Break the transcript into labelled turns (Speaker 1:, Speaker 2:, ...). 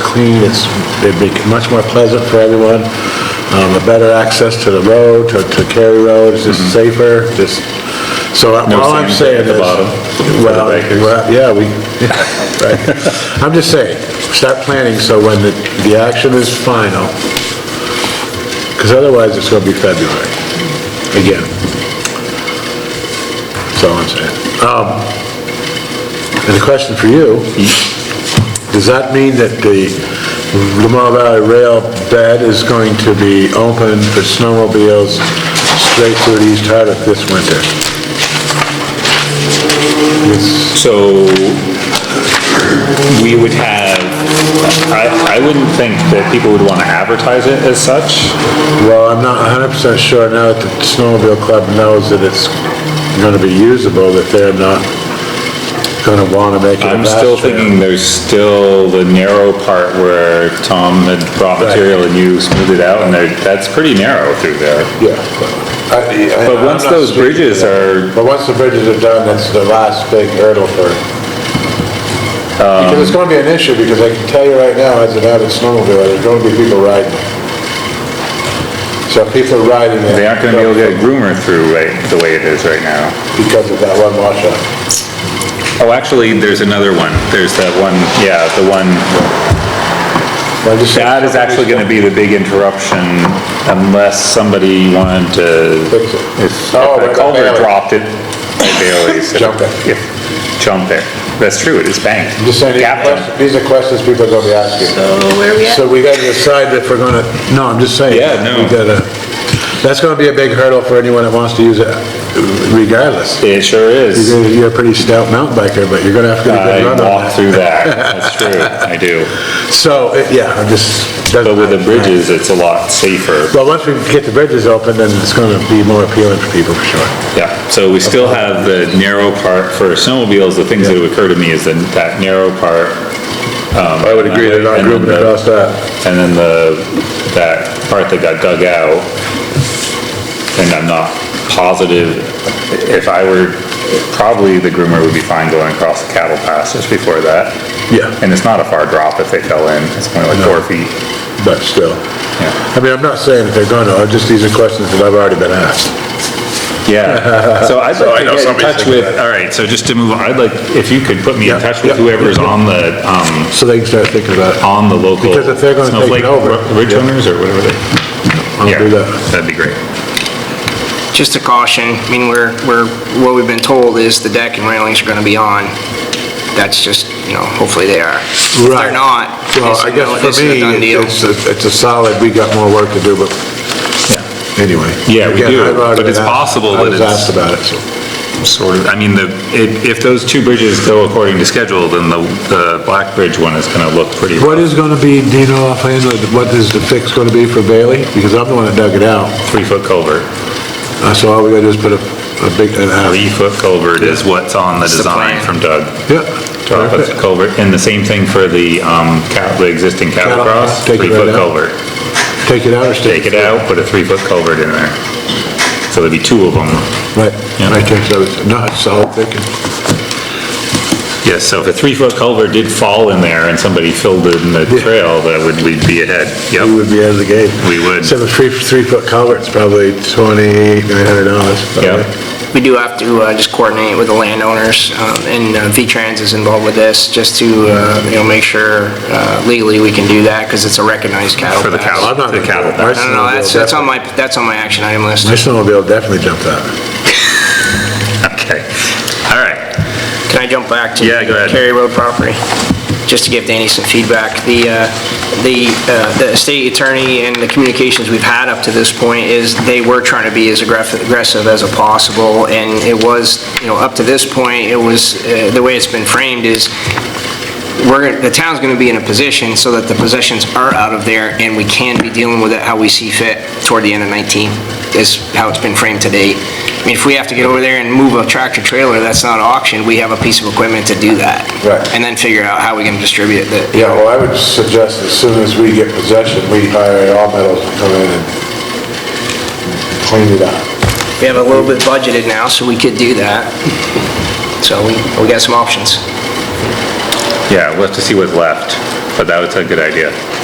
Speaker 1: clean, it's, it'd be much more pleasant for everyone, um, a better access to the road, to, to Cary Road, it's just safer, just, so I-
Speaker 2: Mm-hmm. No
Speaker 1: all I'm saying
Speaker 2: sand at
Speaker 1: is-
Speaker 2: the bottom for the
Speaker 1: Well,
Speaker 2: bikers.
Speaker 1: well, yeah, we, right. I'm just saying, start planning so when the, the action is final, because otherwise it's gonna be February, again. That's all I'm saying. Um, and a question for you, does that mean that the Lamar Valley Rail bed is going to be open for snowmobiles straight through to East Hardwick this winter? It's-
Speaker 2: So we would have, I, I wouldn't think that people would want to advertise it as such.
Speaker 1: Well, I'm not 100% sure now that the snowmobile club knows that it's gonna be usable, that they're not gonna wanna make it a
Speaker 2: I'm
Speaker 1: bass
Speaker 2: still
Speaker 1: trail.
Speaker 2: thinking there's still the narrow part where Tom had brought
Speaker 1: Right.
Speaker 2: material and you smoothed it out, and there, that's pretty narrow through there.
Speaker 1: Yeah. I- I-
Speaker 2: But
Speaker 1: I'm
Speaker 2: once
Speaker 1: not
Speaker 2: those
Speaker 1: speaking to
Speaker 2: bridges
Speaker 1: that.
Speaker 2: are,
Speaker 1: But once the bridges are done, that's the last big hurdle for, because it's gonna be an issue, because I can tell you right now, as an avid snowmobiler, there's gonna be people riding. So people are riding it.
Speaker 2: they aren't gonna be able to get a groomer through right, the way it is right now.
Speaker 1: Because of that one washout.
Speaker 2: Oh, actually, there's another one. There's that one, yeah, the one
Speaker 1: Well, I just-
Speaker 2: That is actually gonna be the big interruption unless somebody wanted to,
Speaker 1: Fix it.
Speaker 2: if if
Speaker 1: Oh,
Speaker 2: a
Speaker 1: right,
Speaker 2: culvert
Speaker 1: Bailey.
Speaker 2: dropped it, at Bailey's.
Speaker 1: Jump it.
Speaker 2: if- Jump there. That's true, it is banked.
Speaker 1: I'm Just saying, these
Speaker 2: Gap
Speaker 1: are
Speaker 2: jump.
Speaker 1: quest- these are questions people are gonna be asking.
Speaker 3: So where are we
Speaker 1: So
Speaker 3: at?
Speaker 1: we gotta decide if we're gonna, no, I'm just saying.
Speaker 2: Yeah, no.
Speaker 1: We gotta, that's gonna be a big hurdle for anyone that wants to use it regardless.
Speaker 2: It sure is.
Speaker 1: You're you're a pretty stout mountain biker, but you're gonna have to get a
Speaker 2: I
Speaker 1: good run on that.
Speaker 2: walk through that, that's true, I do.
Speaker 1: So, it- yeah, I'm just.
Speaker 2: But with the bridges, it's a lot safer.
Speaker 1: Well, once we get the bridges open, then it's gonna be more appealing for people, for sure.
Speaker 2: Yeah, so we still have the narrow part for snowmobiles, the things that would occur to me is that that narrow part.
Speaker 1: I would agree, they're not
Speaker 2: and then
Speaker 1: grouping
Speaker 2: the-
Speaker 1: across that.
Speaker 2: And then the, that part that got dug out, and I'm not positive, if I were, probably the groomer would be fine going across the cattle pass just before that.
Speaker 1: Yeah.
Speaker 2: And it's not a far drop if they fell in, it's only like four
Speaker 1: No.
Speaker 2: feet.
Speaker 1: but still. I
Speaker 2: Yeah.
Speaker 1: mean, I'm not saying that they're gonna, I'm just, these are questions that I've already been asked.
Speaker 2: Yeah, so I'd
Speaker 1: So I
Speaker 2: like
Speaker 1: know
Speaker 2: to get in
Speaker 1: somebody's
Speaker 2: touch
Speaker 1: thinking
Speaker 2: with,
Speaker 1: that.
Speaker 2: all right, so just to move on, I'd like, if you could put me in
Speaker 1: Yeah,
Speaker 2: touch with
Speaker 1: yeah.
Speaker 2: whoever's on the, um,
Speaker 1: So they can start thinking about it.
Speaker 2: on the local.
Speaker 1: Because if they're gonna take it
Speaker 2: Snowflake
Speaker 1: over,
Speaker 2: Ridge
Speaker 1: yeah.
Speaker 2: owners or whatever they.
Speaker 1: I'll do
Speaker 2: Yeah,
Speaker 1: that.
Speaker 2: That'd be great.
Speaker 3: Just a caution, I mean, we're, we're, what we've been told is the deck and railings are gonna be on. That's just, you know, hopefully they are. If
Speaker 1: Right.
Speaker 3: they're not,
Speaker 1: Well,
Speaker 3: it's a
Speaker 1: I
Speaker 3: no-
Speaker 1: guess
Speaker 3: this
Speaker 1: for
Speaker 3: is a
Speaker 1: me,
Speaker 3: done deal.
Speaker 1: it's, a- it's a solid, we got more work to do, but anyway.
Speaker 2: Yeah, we
Speaker 1: Again,
Speaker 2: do,
Speaker 1: I've already
Speaker 2: but it's
Speaker 1: been asked-
Speaker 2: possible that
Speaker 1: I
Speaker 2: it's-
Speaker 1: was asked about it, so.
Speaker 2: Sort of, I mean, the, if, if those two bridges go according to schedule, then the, the Black Bridge one is gonna look pretty.
Speaker 1: What is gonna be, do you know offhand, like, what is the fix gonna be for Bailey? Because I'm the one that dug it out.
Speaker 2: Three-foot culvert.
Speaker 1: Uh, So all we gotta do is put a, a big, an alley.
Speaker 2: Three-foot culvert is what's on the
Speaker 3: That's the
Speaker 2: design
Speaker 3: plan.
Speaker 2: from Doug.
Speaker 1: Yeah.
Speaker 2: Three-foot culvert, and the same thing for the, um, cat, the existing cattle
Speaker 1: Cattle
Speaker 2: cross,
Speaker 1: cross, take it right
Speaker 2: three-foot
Speaker 1: out.
Speaker 2: culvert.
Speaker 1: Take it out or stay?
Speaker 2: Take it out, put a three-foot culvert in there. So there'd be two of them.
Speaker 1: Right,
Speaker 2: Yeah.
Speaker 1: right there, so it's not solid thinking.
Speaker 2: Yes, so if a three-foot culvert did fall in there and somebody filled it in the trail, that would, we'd be ahead.
Speaker 1: We
Speaker 2: Yep,
Speaker 1: would be out of the gate.
Speaker 2: we would.
Speaker 1: Except a three, three-foot culvert's probably twenty-eight, nine hundred dollars.
Speaker 2: Yep.
Speaker 3: We do have to uh, just coordinate with the landowners, um, and uh, V-Trans is involved with this, just to, uh, you know, make sure uh, legally we can do that, because it's a recognized cattle
Speaker 2: For the
Speaker 3: pass.
Speaker 2: cattle.
Speaker 1: I'm not
Speaker 2: The
Speaker 1: gonna
Speaker 2: cattle
Speaker 1: do it. My
Speaker 2: pass.
Speaker 3: No, no,
Speaker 1: snowmobile
Speaker 3: no, that's, that's on my, that's on my action item list.
Speaker 1: definitely- My snowmobile definitely jumped out.
Speaker 2: Okay, all right.
Speaker 3: Can I jump back to?
Speaker 2: Yeah, go ahead.
Speaker 3: Cary Road property, just to give Danny some feedback. The, uh, the, uh, the state attorney and the communications we've had up to this point is they were trying to be as aggressive aggressive as possible, and it was, you know, up to this point, it was, uh, the way it's been framed is, we're, the town's gonna be in a position so that the possessions are out of there, and we can be dealing with it how we see fit toward the end of 19, is how it's been framed to date. I mean, if we have to get over there and move a tractor-trailer that's not auctioned, we have a piece of equipment to do that.
Speaker 1: Right.
Speaker 3: And then figure out how we can distribute it.
Speaker 1: Yeah, well, I would suggest as soon as we get possession, we hire all metals to come in and clean it up.
Speaker 3: We have a little bit budgeted now, so we could do that. So we, we got some options.
Speaker 2: Yeah, we'll have to see what's left. But that was a good idea.